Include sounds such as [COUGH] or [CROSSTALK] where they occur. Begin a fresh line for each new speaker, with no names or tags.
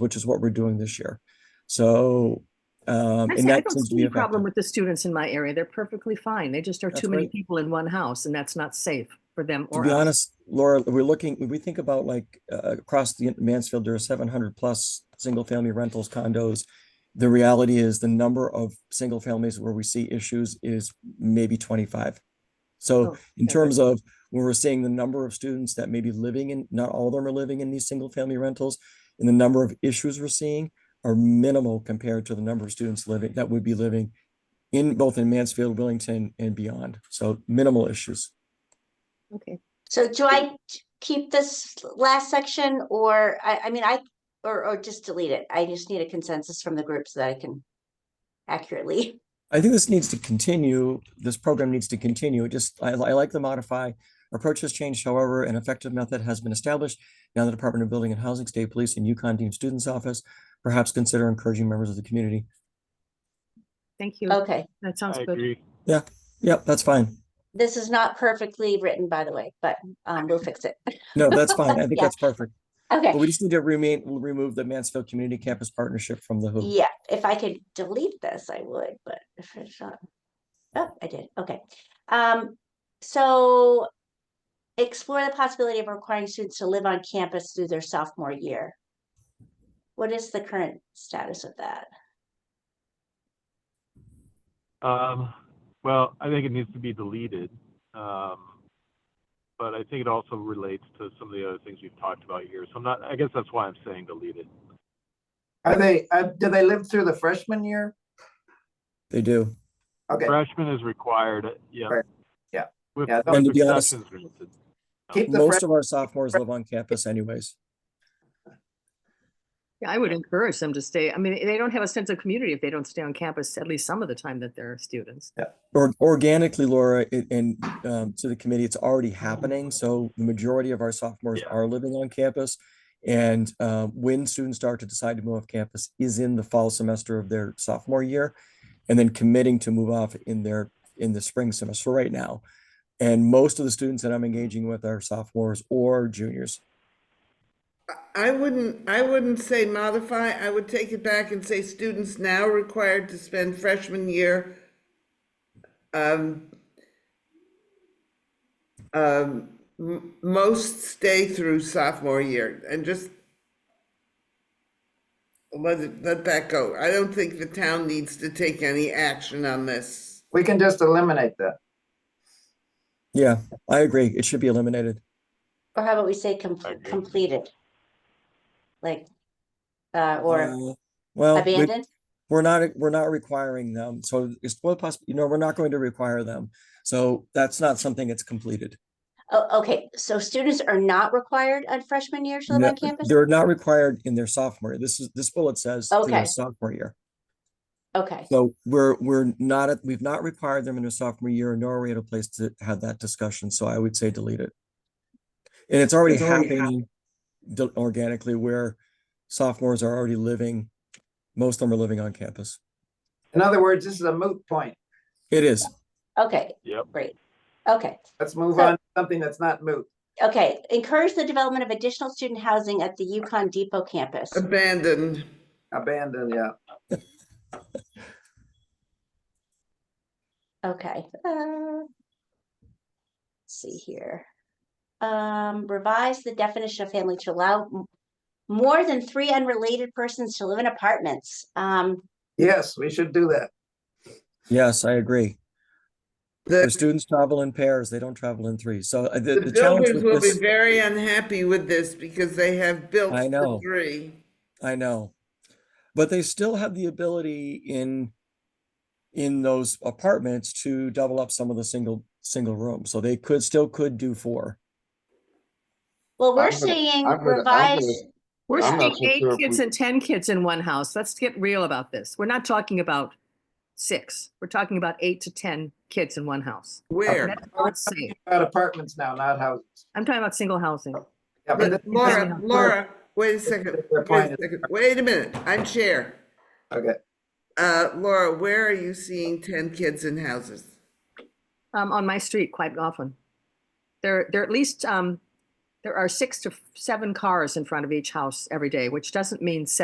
which is what we're doing this year. So, um,
I
and
say, I
that
don't
seems to
see
be
a problem
effective.
with the students in my area. They're perfectly fine. They just are
That's
too many
right.
people in one house and that's not safe for them
To
or
be
us.
honest, Laura, we're looking, when we think about like, uh, across the Mansfield, there are seven hundred plus single-family rentals condos. The reality is the number of single families where we see issues is maybe twenty-five. So
Oh,
in
okay.
terms of when we're seeing the number of students that may be living in, not all of them are living in these single-family rentals, and the number of issues we're seeing are minimal compared to the number of students living, that would be living in both in Mansfield, Willington, and beyond. So minimal issues.
Okay.
So do I t- keep this last section or I, I mean, I, or, or just delete it? I just need a consensus from the group so that I can accurately.
I think this needs to continue, this program needs to continue, it just, I, I like the modify. Approach has changed, however, an effective method has been established. Now the Department of Building and Housing, State Police, and Yukon Dean Students Office perhaps consider encouraging members of the community.
Thank you.
Oh,
Okay,
That sounds
I
good.
agree.
Yep, that's fine.
this is not perfectly written, by the way, but um, we'll fix it. [LAUGHS]
No, that's fine. I think
Yeah.
that's perfect. But
Okay,
we just need to remain, remove the Mansfield Community Campus Partnership from the hoop.
yeah, if I could delete this, I would, but if it's not. Oh, I did, okay. Um, so explore the possibility of requiring students to live on campus through their sophomore year. What is the current status of that?
Um, well, I think it needs to be deleted. Um, but I think it also relates to some of the other things we've talked about here. So I'm not, I guess that's why I'm saying delete it.
Are they, uh, do they live through the freshman year?
They do.
Okay,
Freshman is required, yeah.
Right. Yeah.
With
Yeah, I
thought- And to be honest-
exceptions granted.
keep the
Most
fresh,
of our sophomores live on campus anyways.
Yeah, I would encourage them to stay. I mean, they don't have a sense of community if they don't stay on campus, at least some of the time that they're students.
Or organically, Laura, a- and um, to the committee, it's already happening. So the majority of our sophomores
Yeah.
are living on campus. And uh, when students start to decide to move off campus is in the fall semester of their sophomore year. And then committing to move off in their, in the spring semester right now. And most of the students that I'm engaging with are sophomores or juniors.
I wouldn't, I wouldn't say modify, I would take it back and say students now required to spend freshman year um, um, m- most stay through sophomore year and just let it, let that go. I don't think the town needs to take any action on this.
we can just eliminate that.
Yeah, I agree. It should be eliminated.
Or how about we say com-
I agree.
completed? Like, uh, or
Uh, Well, we-
abandoned?
we're not, we're not requiring them. So it's well possible, you know, we're not going to require them. So that's not something that's completed.
Oh, okay, so students are not required on freshman year to live
No,
on campus?
They're not required in their sophomore. year. This is, this bullet says through their
Okay.
sophomore year.
Okay,
So we're, we're not, at- we've not required them in their sophomore year, nor are we at a place to have that discussion. So I would say delete it. And it's already
It's already hap-
happening d- organically where sophomores are already living, most of them are living on campus.
In other words, this is a moot point.
It is.
okay,
Yep.
great. Okay,
Let's move
So-
on to something that's not moot.
okay, encourage the development of additional student housing at the Yukon Depot campus.
Abandoned.
Abandon, yeah.
Okay, uh, see here. Um, revise the definition of family to allow m- more than three unrelated persons to live in apartments. Um,
Yes, we should do that.
Yes, I agree. Where
The,
students travel in pairs, they don't travel in threes. So uh, the,
the
the challenge
builders
with
will be
this,
very unhappy with this because they have built
I know.
for three.
I know. But they still have the ability in, in those apartments to double up some of the single, single rooms. So they could, still could do four.
well, we're
I'm gonna-
saying
I'm gonna- I'm gonna-
revise,
We're
I'm
seeing
not so
eight
sure if
kids
we-
and ten kids in one house. Let's get real about this. We're not talking about six. We're talking about eight to ten kids in one house.
Where?
That's all it's saying.
About apartments now, not houses.
I'm talking about single housing.
Yeah, but
But
this-
Laura, Laura, wait a second,
Their
wait
point
a
is-
second, wait a minute, I'm chair.
Okay,
Uh, Laura, where are you seeing ten kids in houses?
Um, on my street quite often. There, there at least, um, there are six to seven cars in front of each house every day, which doesn't mean seven.